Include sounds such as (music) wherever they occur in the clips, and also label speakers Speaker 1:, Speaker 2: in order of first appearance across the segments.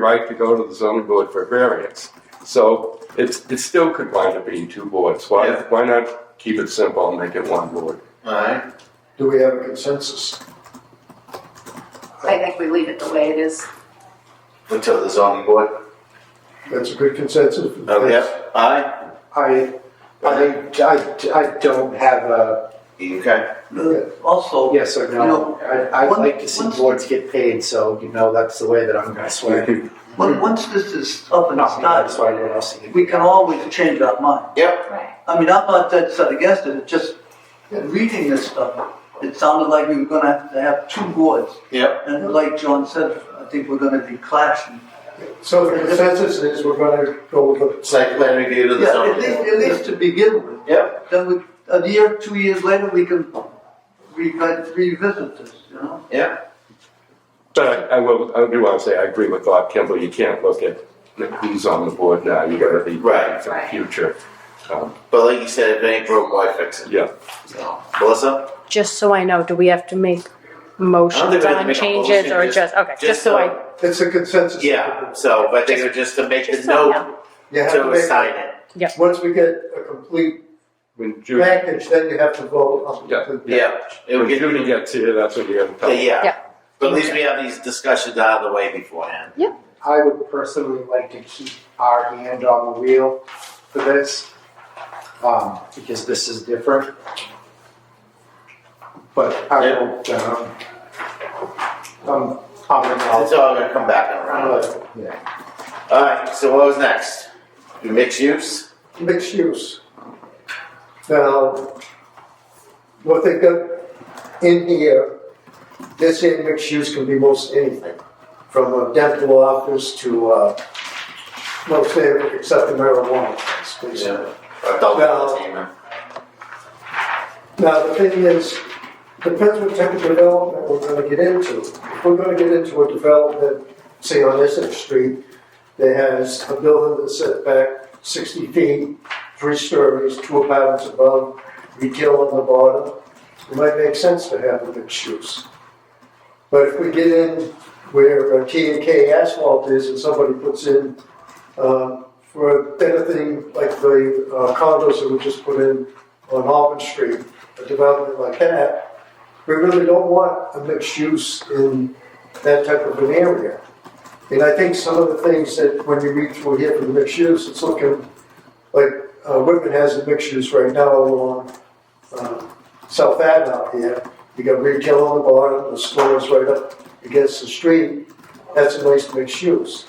Speaker 1: right to go to the zoning board for variance. So it's, it still could wind up being two boards. Why,
Speaker 2: Yeah.
Speaker 1: why not keep it simple and make it one board?
Speaker 2: Alright,
Speaker 3: Do we have a consensus?
Speaker 4: I think we leave it the way it is.
Speaker 2: until the zoning board.
Speaker 3: That's a good consensus.
Speaker 2: Oh, Yep. Aye.
Speaker 5: I, I, I, I don't have a
Speaker 2: Okay.
Speaker 6: Also,
Speaker 5: yes or no. I, I'd like to see boards get paid, so you know that's the way that I'm gonna swear.
Speaker 6: on- once this is up and
Speaker 5: Not me, I
Speaker 6: started,
Speaker 5: swear to else.
Speaker 6: Uh, we can always change our mind.
Speaker 2: Yep.
Speaker 4: Right.
Speaker 6: I mean, I'm not that set against it, it's just reading this stuff, it sounded like we were gonna have to have two boards.
Speaker 2: Yep.
Speaker 6: And like John said, I think we're gonna be clashing.
Speaker 3: So the consensus is we're gonna go with the
Speaker 2: Site plan review to the
Speaker 6: Yeah, at
Speaker 2: zoning
Speaker 6: least,
Speaker 2: board.
Speaker 6: at least to begin with.
Speaker 2: Yep.
Speaker 6: Then we, a year, two years later, we can revi- revisit this, you know?
Speaker 1: But I will, I do want to say, I agree with Bob Kimball, you can't look at who's on the board now, you gotta be
Speaker 2: Right.
Speaker 1: for the future. Um,
Speaker 2: But like you said, if it ain't broke, why fix it?
Speaker 1: Yeah,
Speaker 2: So, Melissa?
Speaker 7: Just so I know, do we have to make
Speaker 2: I don't think
Speaker 7: motions
Speaker 2: we have to
Speaker 7: on
Speaker 2: make a
Speaker 7: changes
Speaker 2: motion,
Speaker 7: or
Speaker 2: just-
Speaker 7: just, okay,
Speaker 2: just
Speaker 7: just so I,
Speaker 2: so-
Speaker 3: It's a consensus.
Speaker 2: Yeah, so I think it was just to make the
Speaker 7: Just so,
Speaker 2: note
Speaker 3: You have to
Speaker 2: to
Speaker 3: make,
Speaker 2: assign it.
Speaker 3: once we get a complete
Speaker 1: when Judy,
Speaker 3: package, then you have to vote on the
Speaker 1: Yeah.
Speaker 3: complete package.
Speaker 2: Yeah. It would
Speaker 1: when
Speaker 2: get,
Speaker 1: Judy gets here, that's what you're gonna
Speaker 2: yeah,
Speaker 1: tell me.
Speaker 2: yeah.
Speaker 7: Yeah.
Speaker 2: But at least we have these discussions out of the way beforehand.
Speaker 5: I would personally like to keep our hand on the wheel for this, um, because this is different. But I will, um, I'm, I'm,
Speaker 2: It's all gonna come back around.
Speaker 5: yeah.
Speaker 2: Alright, so what was next? Do mixed use?
Speaker 3: Mixed use. Now, what they got in here, they're saying mixed use can be most anything, from a dental office to, uh, no, say, except the marijuana, place, basically.
Speaker 2: Adult
Speaker 3: No.
Speaker 2: entertainment.
Speaker 3: Now, the thing is, depends what type of development we're gonna get into. If we're gonna get into a development, say on Essex Street, that has a building that's set back sixty feet, three stories, two apartments above, retail on the bottom, it might make sense to have a mixed use. But if we get in where T and K asphalt is and somebody puts in, um, for anything like the uh, condos that we just put in on Auburn Street, a development like that, we really don't want a mixed use in that type of an area. And I think some of the things that when you read through here for the mixed use, it's looking like uh, Whitman has a mixed use right now along uh, South Ave out here. You got retail on the bottom, the stores right up against the street. That's a nice mixed use.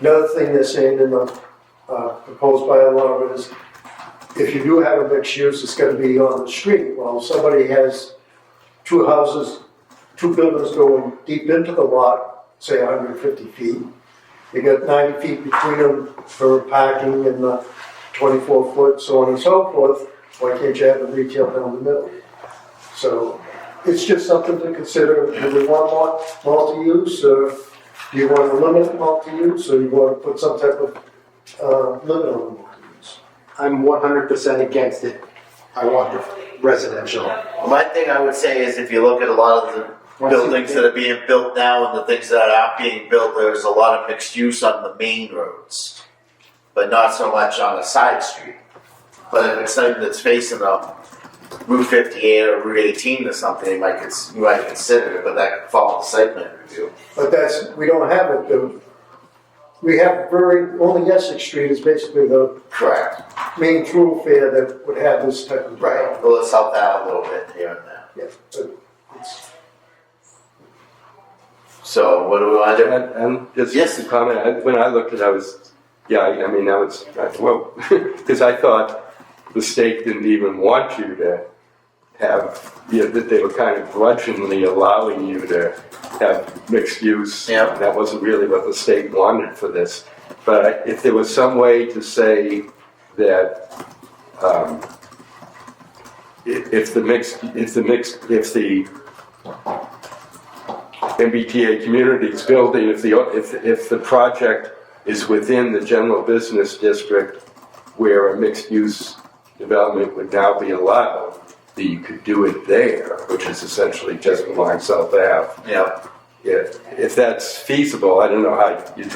Speaker 3: Another thing they're saying in the uh, proposed bylaw is if you do have a mixed use, it's gonna be on the street. Well, if somebody has two houses, two buildings going deep into the lot, say hundred and fifty feet. You got ninety feet between them for parking and the twenty-four foot, so on and so forth. Why can't you have a retail down the middle? So it's just something to consider. Do we want mul- multi-use or do you want to limit multi-use or you want to put some type of, uh, limit on multi-use?
Speaker 5: I'm one hundred percent against it. I want the residential.
Speaker 2: Well, My thing I would say is if you look at a lot of the
Speaker 5: Once you
Speaker 2: buildings
Speaker 5: get-
Speaker 2: that are being built now and the things that are being built, there's a lot of mixed use on the main roads, but not so much on a side street. But if it's something that's facing a Route 58 or Route 18 or something, you might, cons- you might consider it, but that could fall in the site plan review.
Speaker 3: But that's, we don't have it, the, we have very, only Essex Street is basically the
Speaker 2: Correct.
Speaker 3: main thoroughfare that would have this type of.
Speaker 2: Right. Well, let's help that out a little bit here and there.
Speaker 3: Yeah, but it's-
Speaker 2: So, what do we want to do?
Speaker 1: And, and just
Speaker 2: Yes.
Speaker 1: a comment, I- when I looked at it, I was, yeah, I I mean, I was, I- well, (laughs) because I thought the state didn't even want you to have, yeah, that they were kind of grudgingly allowing you to have mixed use.
Speaker 2: Yeah.
Speaker 1: That wasn't really what the state wanted for this. But if there was some way to say that, um, i- if the mixed, if the mixed, if the MBTA Communities building, if the, if, if the project is within the general business district where a mixed-use development would now be allowed, that you could do it there, which is essentially just along South Ave.
Speaker 2: Yeah.
Speaker 1: If, if that's feasible, I don't know how you